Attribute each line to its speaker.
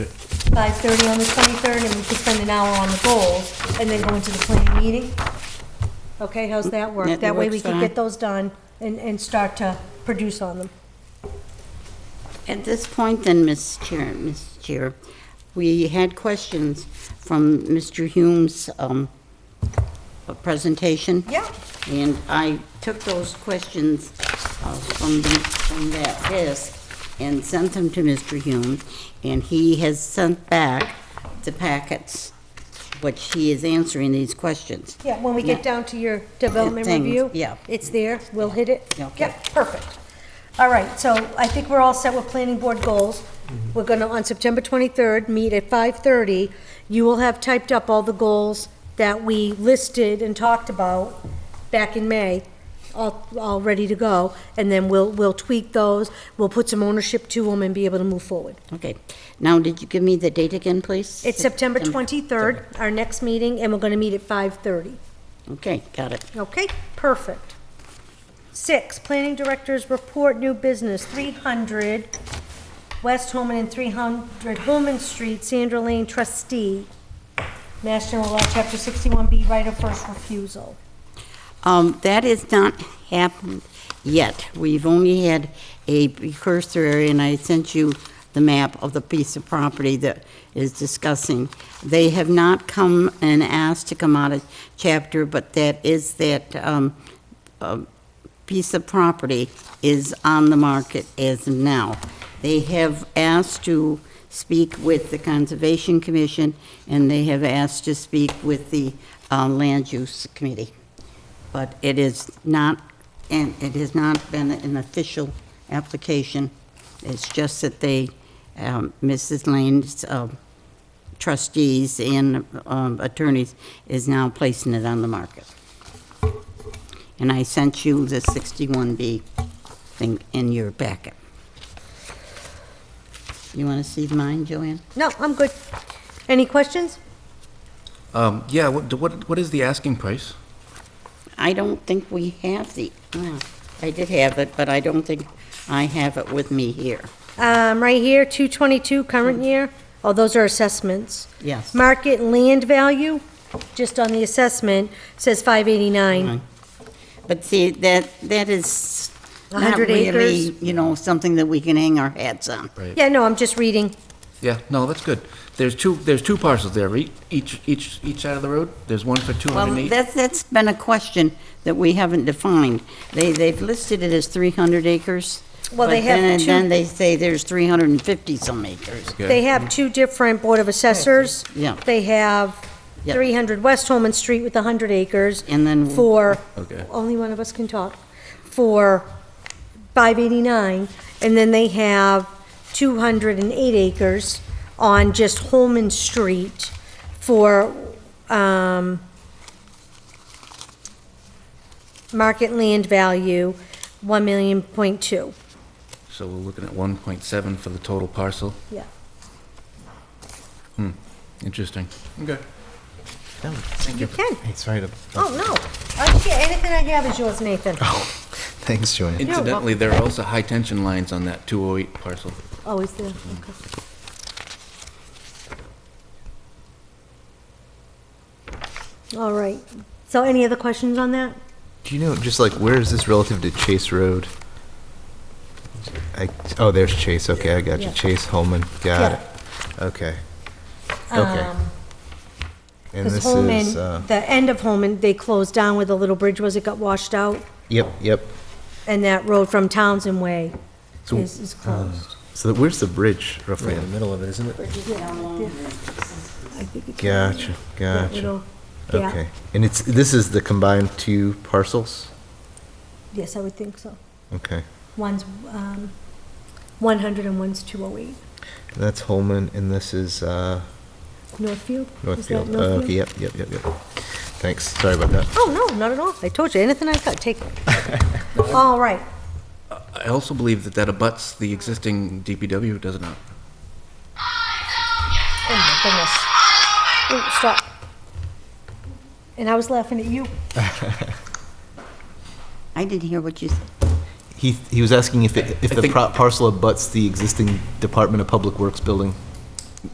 Speaker 1: 5:30 on the 23rd, and we could spend an hour on the goals, and then go into the planning meeting? Okay, how's that
Speaker 2: Yeah,
Speaker 1: work?
Speaker 2: that
Speaker 1: That way we
Speaker 2: works
Speaker 1: can
Speaker 2: fine.
Speaker 1: get those done and, and start to produce on them.
Speaker 2: At this point then, Ms. Chair, Ms. Chair, we had questions from Mr. Hume's um, uh, presentation.
Speaker 1: Yeah.
Speaker 2: And I took those questions uh, from the, from that desk and sent them to Mr. Hume, and he has sent back the packets, which he is answering these questions.
Speaker 1: Yeah, when we get down to your development
Speaker 2: Things,
Speaker 1: review.
Speaker 2: yeah.
Speaker 1: It's there, we'll hit it.
Speaker 2: Okay.
Speaker 1: Yep, perfect. All right, so I think we're all set with planning board goals. We're gonna, on September 23rd, meet at 5:30. You will have typed up all the goals that we listed and talked about back in May, all, all ready to go. And then we'll, we'll tweak those, we'll put some ownership to them and be able to move forward.
Speaker 2: Okay. Now, did you give me the date again, please?
Speaker 1: It's September 23rd, our next meeting, and we're gonna meet at 5:30.
Speaker 2: Okay, got it.
Speaker 1: Okay, perfect. Six, planning directors report new business, 300 West Holman and 300 Holman Street, Sandra Lane trustee, Mass General Law, Chapter 61B, right of first refusal.
Speaker 2: Um, that has not happened yet. We've only had a precursory, and I sent you the map of the piece of property that is discussing. They have not come and asked to come out of chapter, but that is that, um, uh, piece of property is on the market as of now. They have asked to speak with the Conservation Commission, and they have asked to speak with the, uh, Land Use Committee but it is not, and it has not been an official application. It's just that they, um, Mrs. Lane's um, trustees and um, attorneys is now placing it on the market. And I sent you the 61B thing in your packet. You want to see mine, Joanne?
Speaker 1: No, I'm good. Any questions?
Speaker 3: Um, yeah, what, what, what is the asking price?
Speaker 2: I don't think we have the, well, I did have it, but I don't think I have it with me here.
Speaker 1: Um, right here, 222 current year, oh, those are assessments.
Speaker 2: Yes.
Speaker 1: Market land value, just on the assessment, says
Speaker 2: Mm.
Speaker 1: 589.
Speaker 2: But see, that, that is
Speaker 1: A
Speaker 2: not
Speaker 1: hundred
Speaker 2: really,
Speaker 1: acres.
Speaker 2: you know, something that we can hang our hats on.
Speaker 3: Right.
Speaker 1: Yeah, no, I'm just reading.
Speaker 3: Yeah, no, that's good. There's two, there's two parcels there, right? Each, each, each side of the road? There's one for two
Speaker 2: Well,
Speaker 3: hundred and eight?
Speaker 2: that's, that's been a question that we haven't defined. They, they've listed it as 300 acres.
Speaker 1: Well, they
Speaker 2: but
Speaker 1: have
Speaker 2: then-
Speaker 1: two-
Speaker 2: Then they say there's 350 some acres.
Speaker 1: They have two different Board of Assessors.
Speaker 2: Yeah.
Speaker 1: They have
Speaker 2: Yeah.
Speaker 1: 300 West Holman Street with 100 acres.
Speaker 2: And then-
Speaker 1: For,
Speaker 3: Okay.
Speaker 1: only one of us can talk, for 589. And then they have 208 acres on just Holman Street for um, market land value, 1 million point two.
Speaker 3: So we're looking at one point seven for the total parcel.
Speaker 1: Yeah.
Speaker 3: Interesting. Okay.
Speaker 4: No,
Speaker 1: You can.
Speaker 4: sorry to.
Speaker 1: Oh, no. I can't, anything I have is yours, Nathan.
Speaker 4: Oh. Thanks, Joanne.
Speaker 3: Incidentally, there are also high tension lines on that two oh eight parcel.
Speaker 1: Oh, is there? Okay.
Speaker 4: Mm-hmm.
Speaker 1: All right. So any other questions on that?
Speaker 4: Do you know just like where is this relative to Chase Road? I, oh, there's Chase. Okay, I got you.
Speaker 1: Yeah.
Speaker 4: Chase Holman. Got
Speaker 1: Yeah.
Speaker 4: it. Okay. Okay. and
Speaker 1: Because
Speaker 4: this
Speaker 1: Um, Holman,
Speaker 4: is. Uh,
Speaker 1: the end of Holman, they closed down where the little bridge was, it got washed out,
Speaker 4: yep. Yep.
Speaker 1: and that road from Townsend Way
Speaker 4: So- uh,
Speaker 1: is, is closed.
Speaker 4: So where's the bridge roughly?
Speaker 5: Right in the middle of it, isn't it?
Speaker 1: I think it's-
Speaker 4: Gotcha.
Speaker 1: that
Speaker 4: Gotcha.
Speaker 1: little- Yeah,
Speaker 4: Okay. And it's this is the combined two parcels.
Speaker 1: yes, I would think so.
Speaker 4: Okay.
Speaker 1: One's, um, 100 and one's 208.
Speaker 4: That's Holman, and this is uh,
Speaker 1: Northfield? Is that
Speaker 4: Northfield. Oh,
Speaker 1: Northfield?
Speaker 4: okay. Yep. Yep. Yep. Yep. Thanks. Sorry about that.
Speaker 1: Oh, no, not at all. I told you, anything I got, take it. All right.
Speaker 3: I also believe that that abuts the existing DPW, does it not?
Speaker 1: Oh, my goodness. Ooh, stop. And I was laughing at you.
Speaker 2: I didn't hear what you said.
Speaker 4: He, he was asking if, it- if
Speaker 3: I
Speaker 4: the
Speaker 3: think-
Speaker 4: pro- parcel abuts the existing Department of Public Works building.